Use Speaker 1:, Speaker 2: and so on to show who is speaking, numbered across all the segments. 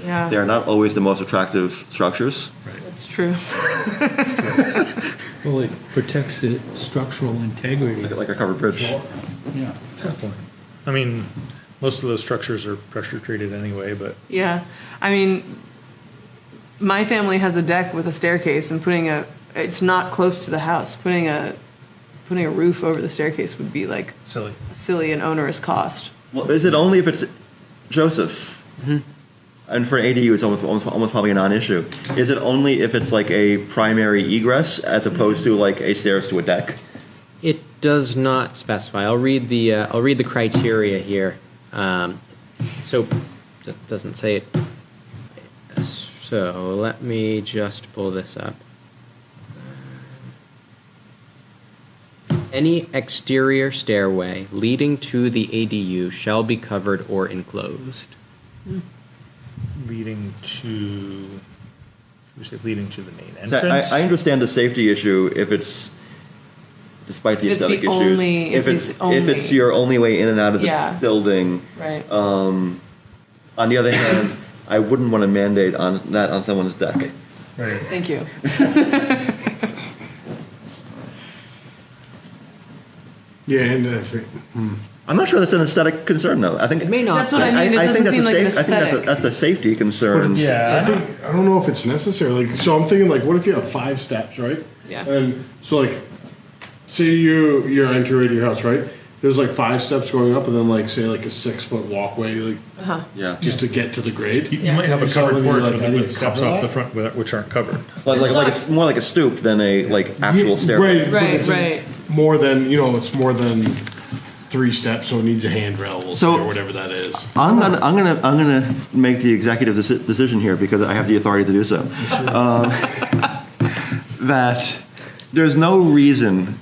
Speaker 1: Yeah.
Speaker 2: They are not always the most attractive structures.
Speaker 1: That's true.
Speaker 3: Well, it protects the structural integrity.
Speaker 2: Like a covered bridge.
Speaker 3: Yeah.
Speaker 4: I mean, most of those structures are pressure treated anyway, but
Speaker 1: Yeah. I mean, my family has a deck with a staircase, and putting a it's not close to the house. Putting a putting a roof over the staircase would be like
Speaker 4: silly.
Speaker 1: a silly and onerous cost.
Speaker 2: Well, is it only if it's Joseph? And for an ADU, it's almost, almost almost probably a non-issue. Is it only if it's like a primary egress as opposed to like a stairs to a deck?
Speaker 5: It does not specify. I'll read the, uh, I'll read the criteria here. Um, so, d- doesn't say it. So, let me just pull this up. Any exterior stairway leading to the ADU shall be covered or enclosed.
Speaker 4: Leading to, we say leading to the main
Speaker 2: So I,
Speaker 4: entrance.
Speaker 2: I understand the safety issue if it's, despite the
Speaker 1: If it's the
Speaker 2: aesthetic issues,
Speaker 1: only-
Speaker 2: if
Speaker 1: if it's
Speaker 2: it's if
Speaker 1: only-
Speaker 2: it's your only way in and out of the
Speaker 1: Yeah.
Speaker 2: building.
Speaker 1: Right.
Speaker 2: Um, on the other hand, I wouldn't want to mandate on that on someone's deck.
Speaker 4: Right.
Speaker 1: Thank you.
Speaker 6: Yeah, and uh, I think
Speaker 2: I'm not sure that's an aesthetic concern though. I think
Speaker 5: It may not
Speaker 1: That's what
Speaker 5: be.
Speaker 1: I mean. It
Speaker 2: I, think
Speaker 1: doesn't
Speaker 2: that's
Speaker 1: seem
Speaker 2: a
Speaker 1: like an
Speaker 2: safe, I think that's a,
Speaker 1: aesthetic.
Speaker 2: that's a safety concern.
Speaker 4: Yeah.
Speaker 6: I think I don't know if it's necessary. Like, so I'm thinking like, what if you have five steps, right?
Speaker 5: Yeah.
Speaker 6: And so like, say you you're entering your house, right? There's like five steps going up, and then like say like a six foot walkway, like
Speaker 1: Uh-huh.
Speaker 2: Yeah.
Speaker 6: just to get to the grade.
Speaker 4: You, you might have a covered
Speaker 6: Something
Speaker 4: porch
Speaker 6: like
Speaker 4: with,
Speaker 6: that, you
Speaker 4: with steps
Speaker 6: cover
Speaker 4: off the
Speaker 6: that?
Speaker 4: front with- which aren't covered.
Speaker 2: like like, like a s more like a stoop than a like actual
Speaker 6: Yeah,
Speaker 2: stairway.
Speaker 6: Right,
Speaker 1: Right,
Speaker 6: but it's
Speaker 1: right.
Speaker 6: More than you know, it's more than three steps, so it needs a handrail
Speaker 2: So-
Speaker 6: or whatever that is.
Speaker 2: I'm gonna I'm gonna I'm gonna make the executive deci- decision here because I have the authority to do so. Um, that there's no reason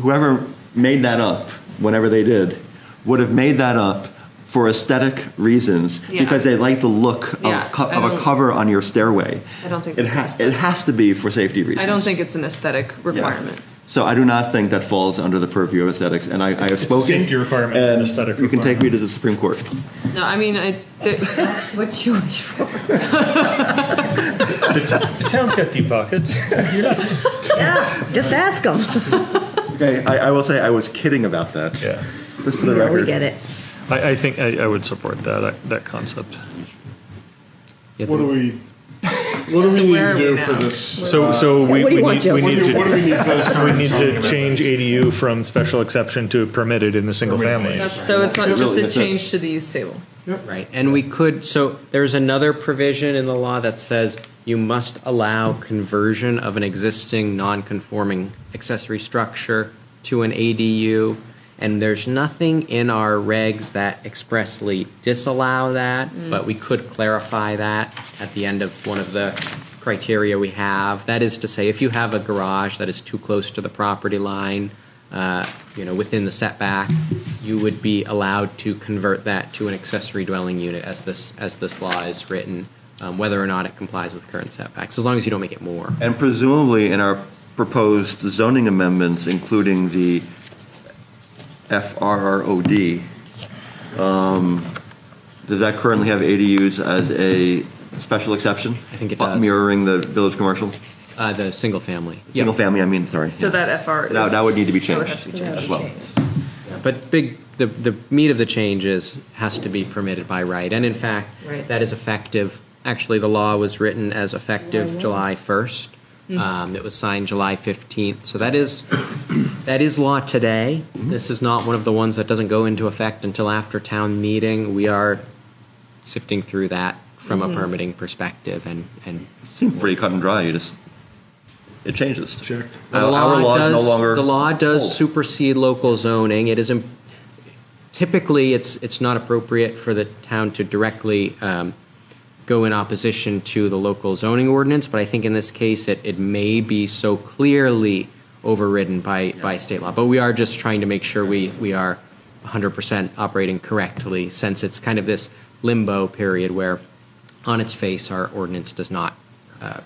Speaker 2: whoever made that up, whenever they did, would have made that up for aesthetic reasons
Speaker 1: Yeah.
Speaker 2: because they like the look of,
Speaker 1: Yeah,
Speaker 2: co-
Speaker 1: I
Speaker 2: of a
Speaker 1: don't-
Speaker 2: cover on your stairway.
Speaker 1: I don't think
Speaker 2: it
Speaker 1: that's
Speaker 2: has it has to be for safety reasons.
Speaker 1: I don't think it's an aesthetic
Speaker 2: Yeah.
Speaker 1: requirement.
Speaker 2: So I do not think that falls under the purview of aesthetics, and I, I have
Speaker 4: a
Speaker 2: spoken.
Speaker 4: safety requirement, not an
Speaker 2: and
Speaker 4: aesthetic
Speaker 2: You can take
Speaker 4: requirement.
Speaker 2: me to the Supreme Court.
Speaker 1: No, I mean, I, the,
Speaker 7: What you wish for?
Speaker 4: The, t- the town's got deep pockets. You're not-
Speaker 7: Yeah, just ask them.
Speaker 2: Okay, I, I will say I was kidding about that.
Speaker 4: yeah.
Speaker 2: Just for the record.
Speaker 7: We get it.
Speaker 4: I, I think I, I would support that I, that concept.
Speaker 5: Yeah,
Speaker 6: What do we? What do
Speaker 1: So
Speaker 6: we need
Speaker 1: where are
Speaker 6: to
Speaker 1: we
Speaker 6: do
Speaker 1: now?
Speaker 6: for this?
Speaker 2: Uh,
Speaker 4: So so we,
Speaker 7: what
Speaker 4: we
Speaker 7: do you want,
Speaker 4: need we
Speaker 7: Joe?
Speaker 6: What
Speaker 4: need
Speaker 6: do, what do
Speaker 4: to
Speaker 6: we need for this?
Speaker 4: we need to change ADU from special exception to permitted in the single family.
Speaker 1: that's, so it's not
Speaker 2: It
Speaker 1: just
Speaker 2: really
Speaker 1: a
Speaker 2: is a-
Speaker 1: change to the use table.
Speaker 5: Right, and we could, so there's another provision in the law that says you must allow conversion of an existing non-conforming accessory structure to an ADU, and there's nothing in our regs that expressly disallow that, but we could clarify that at the end of one of the criteria we have. That is to say, if you have a garage that is too close to the property line, uh, you know, within the setback, you would be allowed to convert that to an accessory dwelling unit as this, as this law is written, um, whether or not it complies with current setbacks, as long as you don't make it more.
Speaker 2: And presumably in our proposed zoning amendments, including the FRROD, um, does that currently have ADUs as a special exception?
Speaker 5: I think it
Speaker 2: Uh,
Speaker 5: does.
Speaker 2: Mirroring the village commercial,
Speaker 5: Uh, the single family. Yeah.
Speaker 2: single family, I mean, sorry.
Speaker 1: So
Speaker 2: yeah.
Speaker 1: that FR.
Speaker 2: That, that would need to be
Speaker 1: would
Speaker 2: changed
Speaker 1: have to be
Speaker 2: as well.
Speaker 5: But big, the, the meat of the change is, has to be permitted by right. And in fact,
Speaker 1: Right.
Speaker 5: that is effective, actually, the law was written as effective July 1st. Um, It was signed July 15th. So that is, that is law today. This is not one of the ones that doesn't go into effect until after town meeting. We are sifting through that from a permitting perspective and, and
Speaker 2: Seemed pretty cut and dry, you just, it changes.
Speaker 6: Check.
Speaker 2: Our,
Speaker 5: the
Speaker 2: our
Speaker 5: law
Speaker 2: laws
Speaker 5: does,
Speaker 2: no longer.
Speaker 5: the law does
Speaker 2: hold.
Speaker 5: supersede local zoning. It is im- typically it's it's not appropriate for the town to directly um, go in opposition to the local zoning ordinance, but I think in this case it, it may be so clearly overridden by by state law. But we are just trying to make sure we we are 100% operating correctly since it's kind of this limbo period where on its face our ordinance does not uh,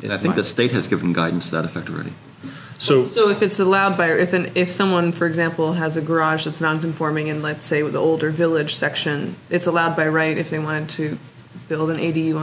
Speaker 2: And I think the state has given guidance to that effect already.
Speaker 4: So
Speaker 1: So if it's allowed by if an if someone, for example, has a garage that's non-conforming in, let's say, the older village section, it's allowed by right if they wanted to build an ADU